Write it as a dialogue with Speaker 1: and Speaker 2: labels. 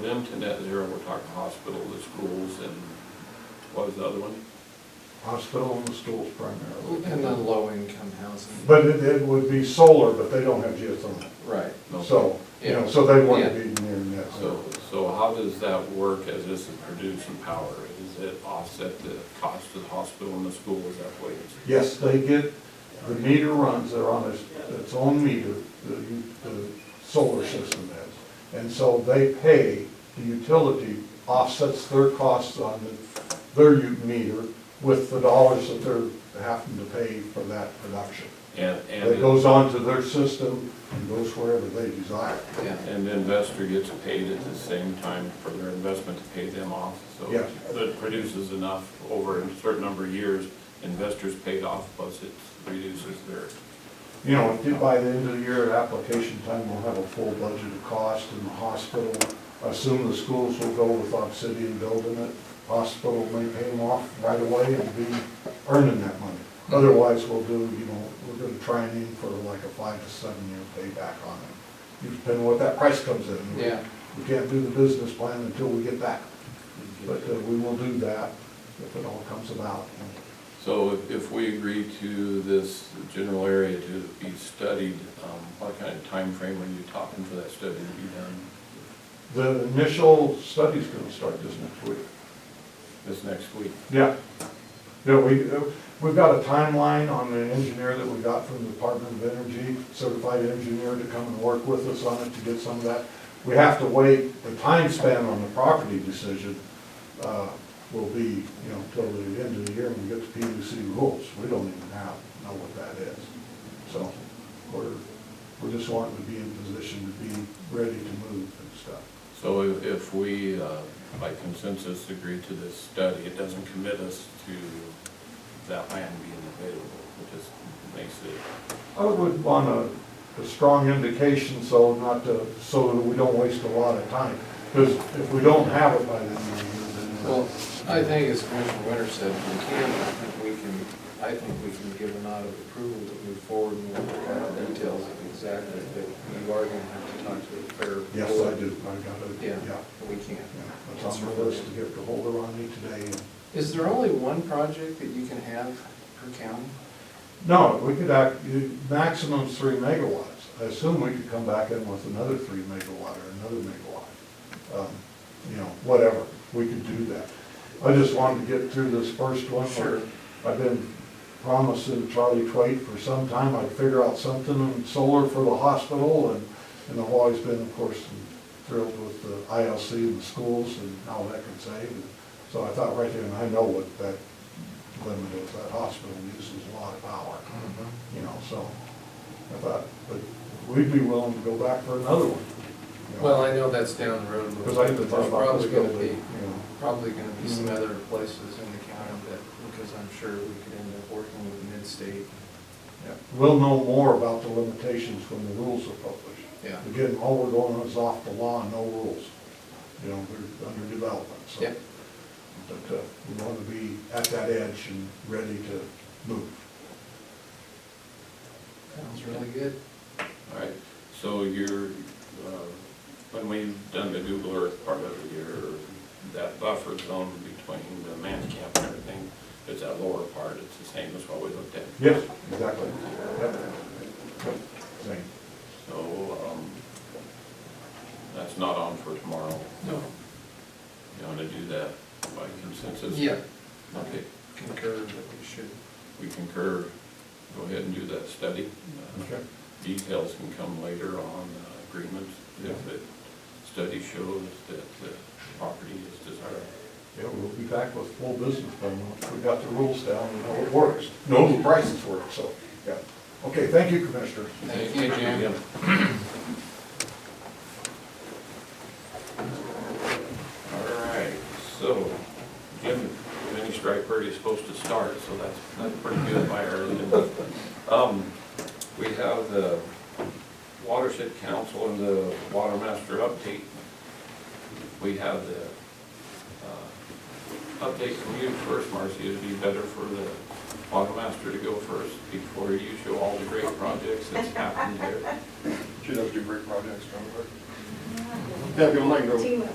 Speaker 1: For them to net zero, we're talking hospital, the schools, and what was the other one?
Speaker 2: hospital and the schools
Speaker 3: And then
Speaker 2: primarily.
Speaker 3: low-income housing.
Speaker 2: But it, it would be solar, but they don't have geothermal,
Speaker 3: Right.
Speaker 1: No.
Speaker 2: so, you know, so they wouldn't
Speaker 3: Yeah.
Speaker 2: be near net
Speaker 1: So,
Speaker 2: zero.
Speaker 1: so how does that work as this is producing power? Does it offset the cost of the hospital and the school, is that what it's?
Speaker 2: Yes, they get, the meter runs, they're on its, its own meter, the, the solar system is. And so they pay, the utility offsets their costs on the- their u- meter with the dollars that they're having to pay for that production.
Speaker 1: And, and,
Speaker 2: That goes onto their system and goes wherever they desire.
Speaker 3: Yeah.
Speaker 1: and the investor gets paid at the same time for their investment to pay them off. So
Speaker 2: Yeah.
Speaker 1: it produces enough over a certain number of years, investors paid off, plus it reduces their,
Speaker 2: You know, if by the end of the year, application time, we'll have a full budget of cost in the hospital. Assume the schools will go with Obsidian building it, hospital may pay them off right away and be earning that money. Otherwise, we'll do, you know, we're gonna try and aim for like a five to seven year payback on it. You depend what that price comes in. We-
Speaker 3: Yeah.
Speaker 2: We can't do the business plan until we get that, but uh, we will do that if it all comes about.
Speaker 1: So if- if we agree to this general area to be studied, um, what kind of time frame are you talking for that study to be done
Speaker 2: The initial study's gonna start this next week.
Speaker 1: this next week?
Speaker 2: Yeah. Yeah, we, uh, we've got a timeline on the engineer that we got from the Department of Energy, certified engineer to come and work with us on it to get some of that. We have to wait, the time span on the property decision, uh, will be, you know, till the end of the year when we get the PUC rules. We don't even have, know what that is. So, we're, we're just wanting to be in position to be ready to move and stuff.
Speaker 1: So if- if we, uh, by consensus, agree to this study, it doesn't commit us to that land being available, it just makes it,
Speaker 2: I would want a, a strong indication, so not to, so that we don't waste a lot of time. Because if we don't have it by the end of the year,
Speaker 3: Well,
Speaker 2: then.
Speaker 3: I think as Commissioner Winter said, if we can, I think we can, I think we can give a nod of approval to move forward and work out the details of exactly, but you are gonna have to talk to a fair.
Speaker 2: Yes, I do, I got it,
Speaker 3: Yeah,
Speaker 2: yeah.
Speaker 3: we can.
Speaker 2: yeah. That's on my list to get the holder on me today. and-
Speaker 3: Is there only one project that you can have per county?
Speaker 2: No, we could act, you- maximum's three megawatts. I assume we could come back in with another three megawatt or another megawatt. Um, You know, whatever, we could do that. I just wanted to get through this first one.
Speaker 3: Sure.
Speaker 2: I've been promising Charlie Twait for some time I'd figure out something on solar for the hospital and, and I've always been, of course, thrilled with the ILC and the schools and how that can save. And So I thought right there, and I know what that limit is, that hospital uses a lot of power you know, so I thought, but we'd be willing to go back for another one. you know.
Speaker 3: Well, I know that's down the road. but
Speaker 2: Because I even thought
Speaker 3: there's
Speaker 2: about
Speaker 3: probably
Speaker 2: this
Speaker 3: gonna
Speaker 2: building,
Speaker 3: be-
Speaker 2: you know.
Speaker 3: probably gonna be some other places in the county that, because I'm sure we could end up working with mid-state.
Speaker 2: Yeah. We'll know more about the limitations when the rules are published.
Speaker 3: Yeah.
Speaker 2: Again, all we're going on is off the law, no rules. You know, they're under development, so.
Speaker 3: Yep.
Speaker 2: But uh, we want to be at that edge and ready to move.
Speaker 3: Sounds really good.
Speaker 1: all right? So you're, uh, when we've done the Google Earth part of it, your, that buffer zone between the man camp and everything, it's that lower part, it's the same as what we looked at.
Speaker 2: Yes, exactly. Yep. Same.
Speaker 1: So, um, that's not on for tomorrow.
Speaker 3: No.
Speaker 1: You want to do that by consensus?
Speaker 3: Yeah,
Speaker 1: Okay,
Speaker 3: concur that we should.
Speaker 1: we concur, go ahead and do that study. Uh,
Speaker 2: Okay.
Speaker 1: Details can come later on uh, agreements if the study shows that the property is desirable.
Speaker 2: Yeah, we'll be back with full business plan once we got the rules down and how it works. Know the prices work, so, yeah. Okay, thank you, Commissioner.
Speaker 3: Thank you, Jim.
Speaker 1: Yeah. All right, so Jim finished right where he's supposed to start, so that's, that's pretty good by early. Um, we have the Watershed Council and the Water Master update. We have the, uh, update from you first, Marcy, it'd be better for the Water Master to go first before you show all the great projects that's happened there.
Speaker 4: She'd have to do great projects, don't
Speaker 5: Yeah,
Speaker 4: Yeah, if you like, go.
Speaker 5: Team up.